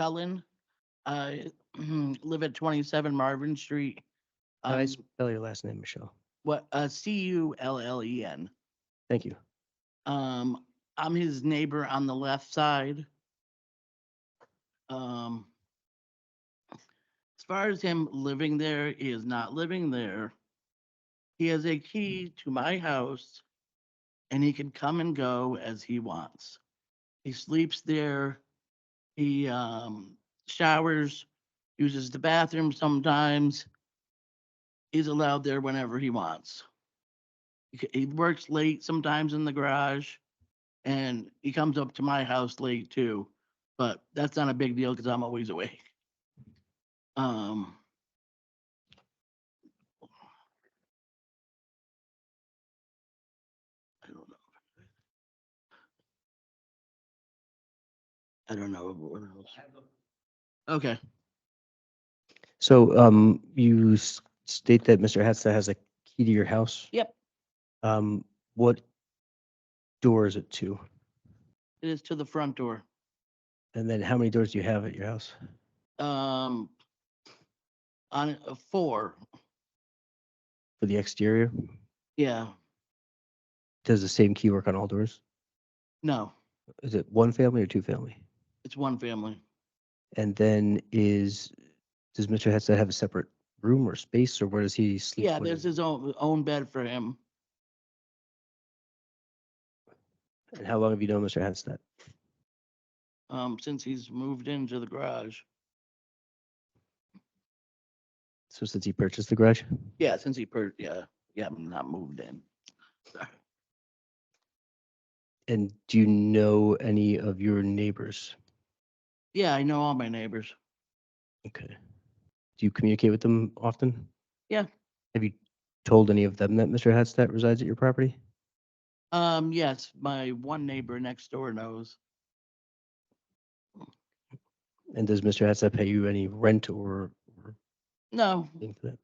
Cullen. I live at twenty-seven Marvin Street. How do I Um, spell your last name, Michelle? What, uh, C U L L E N. Thank you. Um, I'm his neighbor on the left side. Um, as far as him living there, he is not living there. He has a key to my house and he can come and go as he wants. He sleeps there. He, um, showers, uses the bathroom sometimes. He's allowed there whenever he wants he c- he works late sometimes in the garage and he comes up to my house late too, but that's not a big deal because I'm always awake. Um. I don't know. I don't know. what else. Okay, So um, you s- state that Mr. Hatstat has a key to your house? Yep. Um, what door is it to? it is to the front door. And then how many doors do you have at your house? Um. On a four, For the exterior? yeah, Does the same key work on all doors? no, Is it one family or two family? it's one family. And then is, does Mr. Hatstat have a separate room or space or where does he sleep? Yeah, when there's he- his own, own bed for him. And how long have you known Mr. Hatstat? um, since he's moved into the garage. So since he purchased the garage? Yeah, since he per, yeah, yeah, I'm not moved in. Sorry. And do you know any of your neighbors? Yeah, I know all my neighbors. Okay. Do you communicate with them often? Yeah. Have you told any of them that Mr. Hatstat resides at your property? Um, yes, my one neighbor next door knows. And does Mr. Hatstat pay you any rent or or No, anything for that?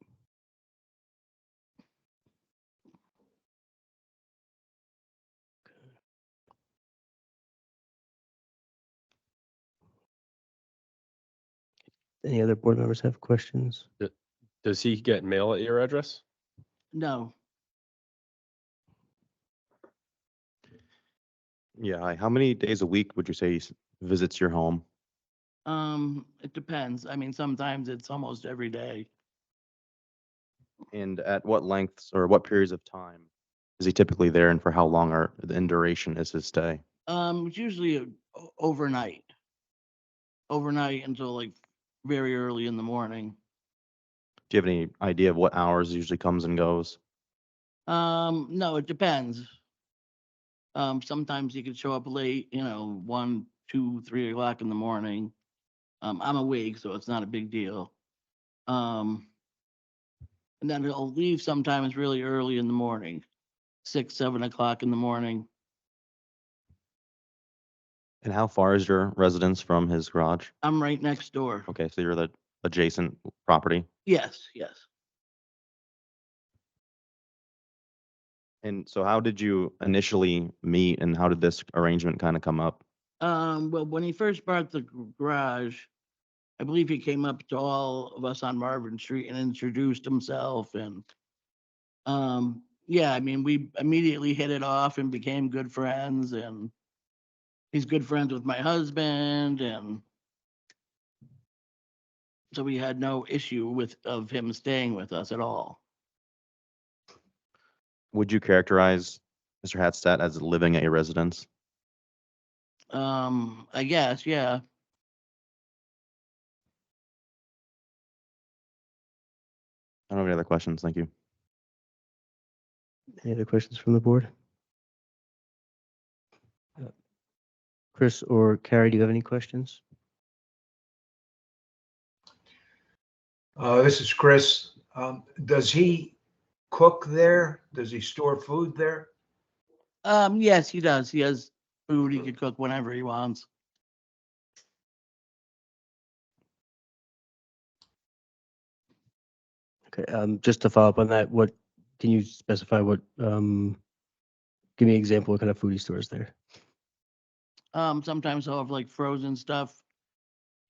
Any other board members have questions? Does he get mail at your address? no, Yeah, hi. How many days a week would you say he s- visits your home? um, it depends. I mean, sometimes it's almost every day. And at what lengths or what periods of time is he typically there and for how long or in duration is his stay? Um, it's usually uh, o- overnight. Overnight until like very early in the morning. Do you have any idea of what hours he usually comes and goes? Um, no, it depends. Um, sometimes you could show up late, you know, one, two, three o'clock in the morning. Um, I'm awake, so it's not a big deal. Um, and then it'll leave sometimes really early in the morning, six, seven o'clock in the morning. And how far is your residence from his garage? I'm right next door. Okay, so you're the adjacent property. Yes, yes. And so how did you initially meet and how did this arrangement kind of come up? Um, well, when he first bought the g- garage, I believe he came up to all of us on Marvin Street and introduced himself and um, yeah, I mean, we immediately hit it off and became good friends and he's good friends with my husband and so we had no issue with of him staying with us at all. Would you characterize Mr. Hatstat as living at your residence? Um, I guess, yeah. I don't have any other questions. Thank you. Any other questions from the board? Uh, Chris or Carrie, do you have any questions? Uh, this is Chris. Um, does he cook there? Does he store food there? Um, yes, he does. He has food. He could cook whenever he wants. Okay, um, just to follow up on that, what, can you specify what, um, give me an example, what kind of foodie stores there? Um, sometimes I'll have like frozen stuff,